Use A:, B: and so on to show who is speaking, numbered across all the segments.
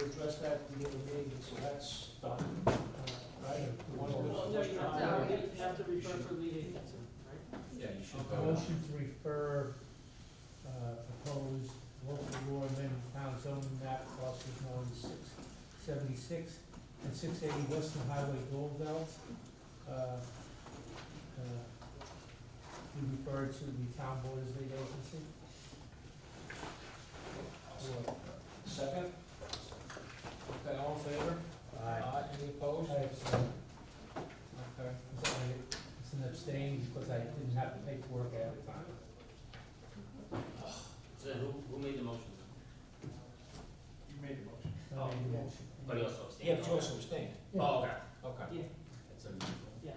A: at the other meeting, so that's done, uh, right? The one that
B: Well,
A: was-
B: no, you have
C: No,
B: to,
C: we-
B: you have to refer for lead agency, right?
C: Yeah, you should
D: A
C: vote.
D: Motion to refer, uh, proposed local law amendment town zoning map parcels known as six seventy-six and six eighty Western Highway Gold Belt. uh, uh, Be referred to the town board as lead agency.
A: Second? Okay, all in favor? Aye. Any
D: I
A: opposed?
D: abstain.
A: Okay.
D: It's only- it's an abstain because I didn't have the paperwork at the time.
C: So who, who made the motion?
A: You made the motion.
D: I made the motion.
C: But he also abstained.
A: Yeah, but Oh. you also abstained.
C: Oh, okay.
A: Okay.
C: That's unusual.
B: Yeah.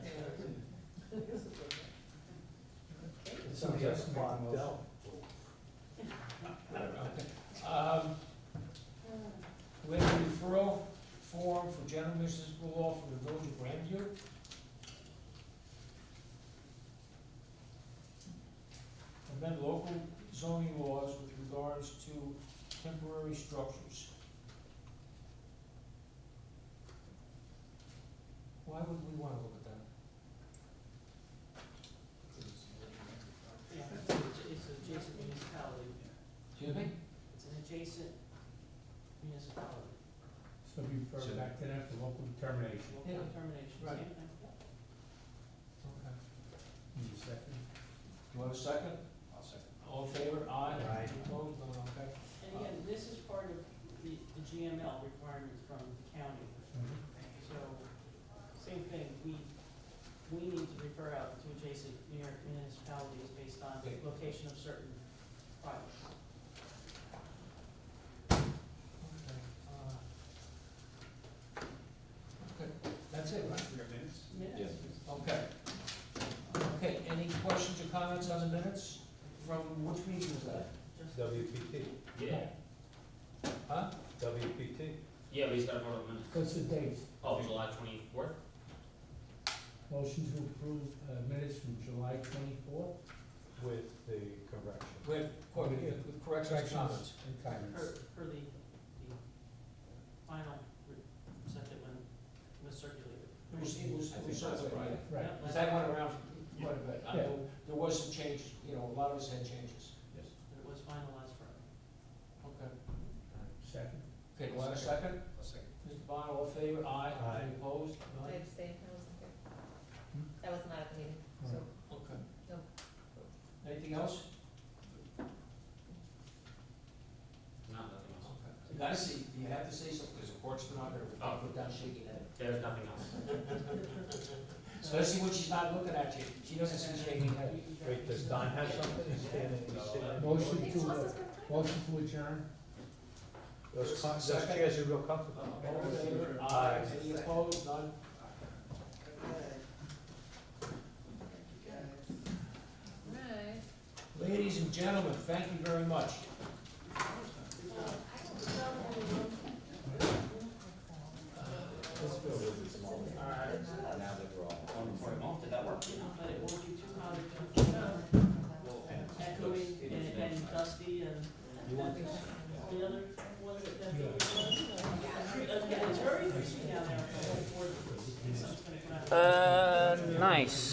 D: Somebody else made the motion.
A: Um, We have a referral form for general municipal law for the village of Grandview. Amend local zoning laws with regards to temporary structures. Why would we wanna look at that?
B: Yeah, It's an adjacent municipality,
A: Excuse me?
B: it's an adjacent municipality,
D: So be referred back to them for local determination.
B: local
A: Yeah.
B: determination, same
A: Right.
B: thing.
A: Okay.
D: Need a second?
A: Do you have a second? I'll second. All in favor? Aye.
D: Aye.
A: Opposed? None, okay.
B: And again, this is part of the, the GML requirements from the county, so, same thing, we, we need to refer out to adjacent municipalities based on
A: Okay.
B: location of certain projects.
A: Okay, uh, Okay, that's it, right?
C: Yes.
A: Okay. Okay, any questions or comments on the minutes? From which meeting was that?
B: Just-
E: WPT,
C: Yeah,
A: Huh?
E: WPT.
C: yeah, but he's got to vote on the minutes.
D: What's the date?
C: Oh, July twenty-fourth?
D: Motion to approve uh, minutes from July twenty-fourth.
E: With the correction.
A: With, cor- with corrections and comments?
D: And comments.
B: For, for the, the final re- set that went, was circulated.
A: It was, it was, it was
C: I think that's
A: something,
C: right.
A: yeah.
D: Right.
B: Yep,
A: Because
B: last-
A: that went around quite a bit. I know there was some change, you know, a lot of us had changes.
C: Yes.
B: It was finalized for.
A: Okay.
D: Second.
A: Okay, do I have a second?
C: A second.
A: Mr. Bond, all in favor? Aye.
E: Aye.
A: Any opposed? None?
F: I abstained, I wasn't there.
D: Hmm?
F: I was not at the meeting, so.
A: Okay.
F: No.
A: Anything else?
C: No, nothing else.
A: Okay. You gotta see, you have to say something, because the court's not gonna
C: Oh.
A: put down shaking head.
C: There's nothing else.
A: Especially when she's not looking at you, she doesn't see shaking head.
E: Wait, does Don have something? He's standing, he's standing.
D: Motion
F: It's
D: to,
F: lost
D: uh,
F: its good time.
D: motion to adjourn.
E: Those co- those chairs are real comfortable.
A: All in favor? Aye. Any opposed? None?
F: Right.
A: Ladies and gentlemen, thank you very much.
F: Well, I don't know anyone.
E: This bill is small.
C: All right. Now that we're all on the form, did that work?
B: But it won't be too hot, it won't be too echoing
C: It is
B: and and dusty and the other ones that definitely. Again, it's very busy down there. for the board, so it's gonna come out.
G: Uh, nice.